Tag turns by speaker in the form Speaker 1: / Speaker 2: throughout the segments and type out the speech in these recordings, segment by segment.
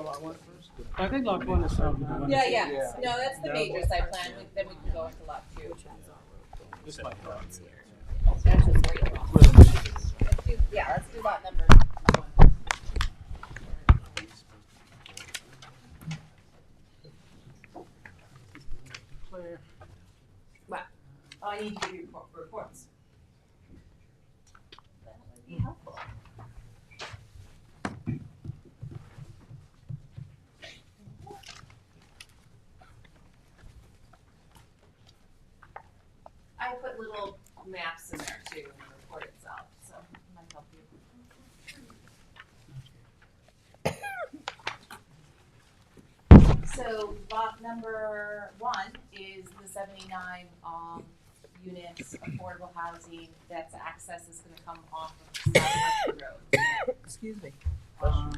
Speaker 1: one first?
Speaker 2: I think lot one is south of the one.
Speaker 3: Yeah,
Speaker 2: that's-
Speaker 3: yeah,
Speaker 1: Yeah.
Speaker 3: no, that's the
Speaker 2: That
Speaker 3: major
Speaker 2: was-
Speaker 3: site plan, We- then we can go into lot two.
Speaker 2: This might be lot two.
Speaker 3: That's just where you are.
Speaker 2: Where the machine is.
Speaker 3: Let's do- Yeah, let's do lot number one.
Speaker 2: Claire.
Speaker 3: Oh, I need to give you report- reports. That would be helpful. I put little maps in there too, in the report itself, so it might help you. So lot number one is the seventy-nine, um, units, affordable housing, that's access is gonna come off of South Hudson Road.
Speaker 4: Excuse me.
Speaker 3: Um,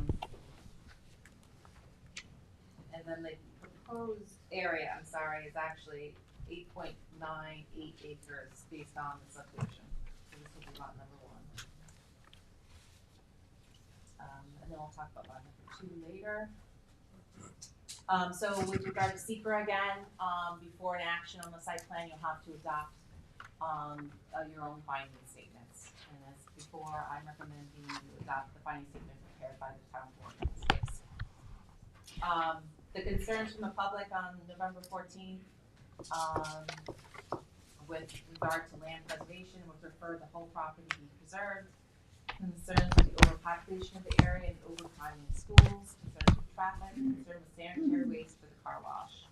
Speaker 3: And then the proposed area, I'm sorry, is actually eight point nine eight acres based on the subdivision. So this will be lot number one. Um, and then we'll talk about lot number two later. Um, so with regard to secra again, um, before an action on the site plan, you'll have to adopt, um, uh, your own finding statements. And as before, I'm recommending you adopt the finding statement prepared by the town board. in this case. Um, the concerns from the public on November fourteenth, um, with regard to land preservation, would prefer the whole property be preserved. Concerns with the overpopulation of the area and overcrowding in schools, concerns with traffic, concern with sanitary waste for the car wash.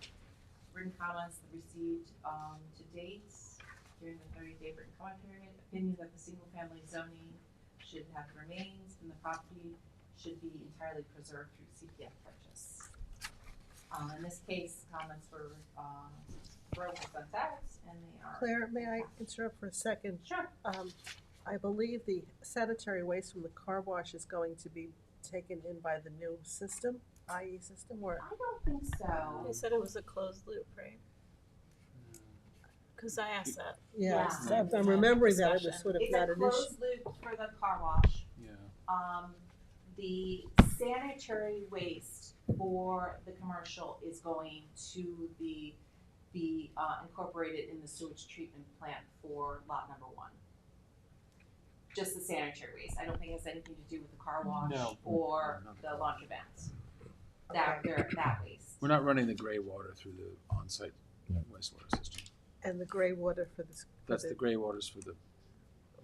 Speaker 3: Written comments received, um, to date, during the thirty-day written comment period, opinion that the single-family zoning should have remains and the property should be entirely preserved through CPF purchase. Um, in this case, comments were, um, Rose and Sons, and they are.
Speaker 4: Claire, may I interrupt for a second?
Speaker 3: Sure.
Speaker 4: Um, I believe the sanitary waste from the car wash is going to be taken in by the new system, IE system, or
Speaker 3: I don't think so.
Speaker 5: They said it was a closed loop, right? Because I asked that.
Speaker 4: yeah,
Speaker 3: Yeah.
Speaker 4: so I'm remembering that it was
Speaker 5: Discussion.
Speaker 4: sort of
Speaker 3: It's
Speaker 4: not
Speaker 3: a
Speaker 4: an
Speaker 3: closed
Speaker 4: issue.
Speaker 3: loop for the car wash.
Speaker 1: Yeah.
Speaker 3: Um, the sanitary waste for the commercial is going to the, be, uh, incorporated in the sewage treatment plant for lot number one. Just the sanitary waste, I don't think it has anything to do with the car wash
Speaker 1: No.
Speaker 3: or
Speaker 1: Not the
Speaker 3: the
Speaker 1: car
Speaker 3: laundromats. That, they're- that waste.
Speaker 1: We're not running the gray water through the on-site
Speaker 6: Yeah.
Speaker 1: wastewater system.
Speaker 4: And the gray water for this, for
Speaker 1: That's the
Speaker 4: the,
Speaker 1: gray waters for the,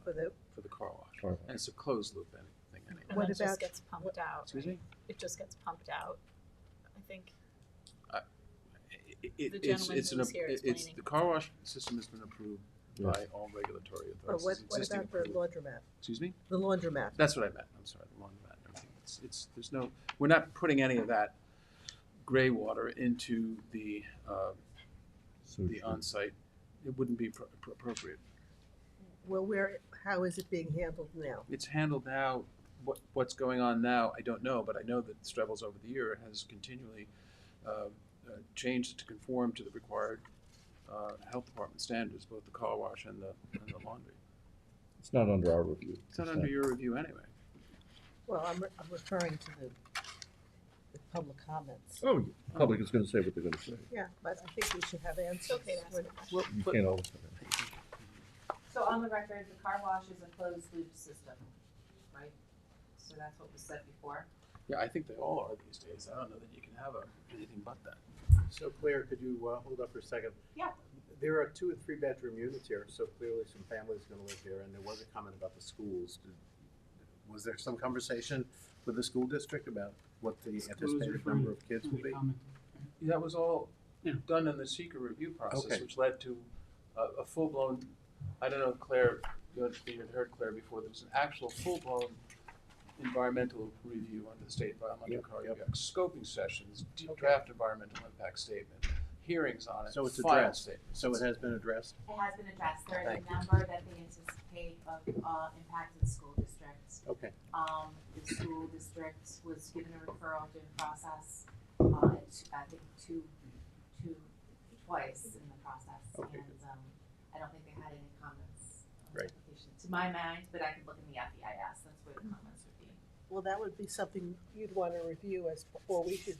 Speaker 4: for the,
Speaker 1: for the car wash.
Speaker 6: Car wash.
Speaker 1: And it's a closed loop thing anyway.
Speaker 5: And
Speaker 4: What
Speaker 5: then it
Speaker 4: about-
Speaker 5: just gets pumped out.
Speaker 1: Excuse
Speaker 5: right?
Speaker 1: me?
Speaker 5: It just gets pumped out, I think.
Speaker 1: It- it-
Speaker 5: The
Speaker 1: it's,
Speaker 5: gentleman
Speaker 1: it's
Speaker 5: who
Speaker 1: an
Speaker 5: was
Speaker 1: ap-
Speaker 5: here
Speaker 1: it- it's,
Speaker 5: explaining.
Speaker 1: the car wash system has been approved
Speaker 6: Yeah.
Speaker 1: by all regulatory
Speaker 4: or
Speaker 1: authorities.
Speaker 4: what,
Speaker 1: It's
Speaker 4: what
Speaker 1: existing
Speaker 4: about the
Speaker 1: approved.
Speaker 4: laundromat?
Speaker 1: Excuse me?
Speaker 4: The laundromat,
Speaker 1: That's what I meant, I'm sorry, the laundromat and everything. It's, it's, there's no, we're not putting any of that gray water into the, uh,
Speaker 6: So
Speaker 1: the
Speaker 6: should-
Speaker 1: on-site. It wouldn't be pro- pro- appropriate.
Speaker 4: well, where, how is it being handled now?
Speaker 1: it's handled now. What what's going on now, I don't know, but I know that Strebels over the year has continually um, uh, changed to conform to the required uh, health department standards, both the car wash and the and the laundry.
Speaker 6: It's not under our review.
Speaker 1: It's not under your review anyway.
Speaker 4: Well, I'm, re- I'm referring to the, the public comments.
Speaker 6: Oh, yeah. public is gonna say what they're gonna say.
Speaker 4: Yeah, but I think we should have answers.
Speaker 5: okay to ask
Speaker 4: when-
Speaker 5: a question.
Speaker 1: Well,
Speaker 6: You
Speaker 1: but
Speaker 6: can't always.
Speaker 3: So on the record, the car wash is a closed loop system, right? So that's what was said before.
Speaker 1: yeah, I think they all are these days. I don't know that you can have a, anything but that.
Speaker 7: So Claire, could you uh, hold up for a second?
Speaker 3: Yeah.
Speaker 7: There are two and three bedroom units here, so clearly some families are gonna live there, and there was a comment about the schools. Did- Was there some conversation with the school district about what the
Speaker 2: Schools
Speaker 7: anticipated
Speaker 2: referring-
Speaker 7: number of kids will be?
Speaker 1: That was all
Speaker 2: Yeah.
Speaker 1: done in the secret review process,
Speaker 7: Okay.
Speaker 1: which led to a, a full blown. I don't know, Claire. You had you had heard Claire before. There was an actual full blown environmental review under the state environmental
Speaker 7: Yep,
Speaker 1: code.
Speaker 7: yep.
Speaker 1: You got Scoping sessions, d-
Speaker 7: Okay.
Speaker 1: draft environmental impact statement, hearings on it,
Speaker 7: So it's
Speaker 1: final
Speaker 7: addressed.
Speaker 1: statements.
Speaker 7: So it has been addressed?
Speaker 3: It has been addressed, there is
Speaker 1: Thank
Speaker 3: a number that they anticipate of, uh, impact to the school district.
Speaker 7: Okay.
Speaker 3: Um, the school district was given a referral during the process, uh, t- I think two, two, twice in the process.
Speaker 7: Okay,
Speaker 3: And, um, I don't think they had any comments on the
Speaker 7: Right.
Speaker 3: application, to my mind, but I could look in the FEIS, that's where the comments would be.
Speaker 4: Well, that would be something you'd want to review as, or we should